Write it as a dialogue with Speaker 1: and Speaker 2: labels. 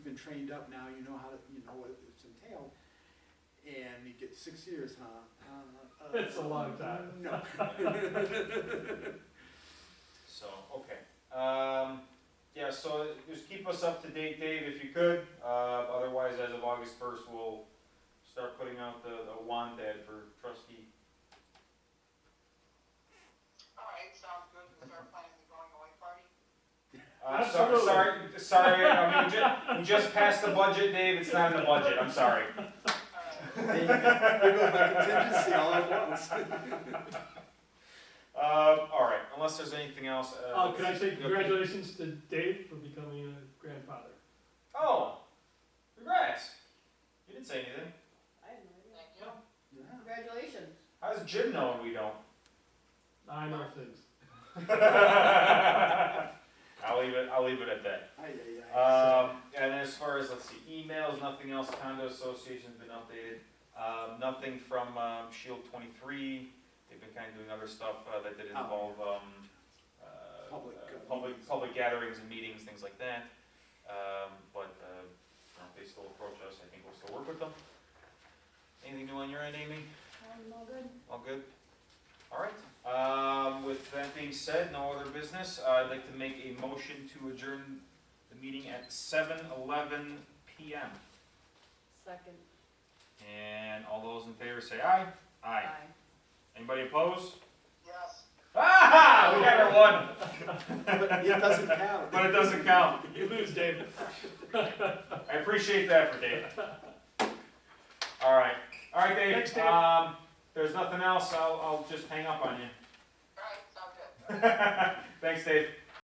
Speaker 1: trained up now, you know how, to- you know what it's entailed. And you get six years, huh? Uh, uh,
Speaker 2: It's a long time.
Speaker 1: No.
Speaker 3: So, okay, um, yeah, so just keep us up to date, Dave, if you could, uh, otherwise, as of August first, we'll start putting out the, the want ad for trustee.
Speaker 4: All right, sounds good, we'll start planning the going away party.
Speaker 3: Uh, so-
Speaker 2: Absolutely.
Speaker 3: Sorry, sorry, I mean, ju- we just passed the budget, Dave, it's not in the budget, I'm sorry.
Speaker 4: All right.
Speaker 1: There you go. There goes my contingency all at once.
Speaker 3: Uh, all right, unless there's anything else. Uh,
Speaker 2: Uh, can I
Speaker 3: let's-
Speaker 2: say congratulations to Dave for becoming a grandfather?
Speaker 3: Oh, congrats! You didn't say anything.
Speaker 5: I have no idea.
Speaker 4: Thank you.
Speaker 1: Yeah.
Speaker 5: Congratulations.
Speaker 3: How does Jim know and we don't?
Speaker 2: I know things.
Speaker 3: I'll leave it. I'll leave it at that.
Speaker 1: Ay, ay, ay.
Speaker 3: Um, and as far as let's see, emails, nothing else. Condo association's been updated. Um, nothing from um, Shield 23. They've been kind of doing other stuff uh, that did
Speaker 1: Oh.
Speaker 3: involve um, uh,
Speaker 1: Public,
Speaker 3: uh,
Speaker 1: uh, meetings.
Speaker 3: public, public gatherings and meetings, things like that. Um, but uh, you know, they still approach us. I think we'll still work with them. Anything new on your end, Amy?
Speaker 5: I'm all good.
Speaker 3: All good? All right, um, with that being said, no other business, I'd like to make a motion to adjourn the meeting at seven eleven PM.
Speaker 5: Second.
Speaker 3: And all those in favor say aye? Aye.
Speaker 5: Aye.
Speaker 3: Anybody opposed?
Speaker 4: Yes.
Speaker 3: Ah, we got our one,
Speaker 1: But it doesn't count.
Speaker 3: but it doesn't count.
Speaker 2: You lose, Dave.
Speaker 3: I appreciate that for Dave. All right, all right,
Speaker 2: Thanks,
Speaker 3: Dave,
Speaker 2: Dave.
Speaker 3: um, there's nothing else, I'll, I'll just hang up on you.
Speaker 4: All right, sounds good.
Speaker 3: Thanks, Dave.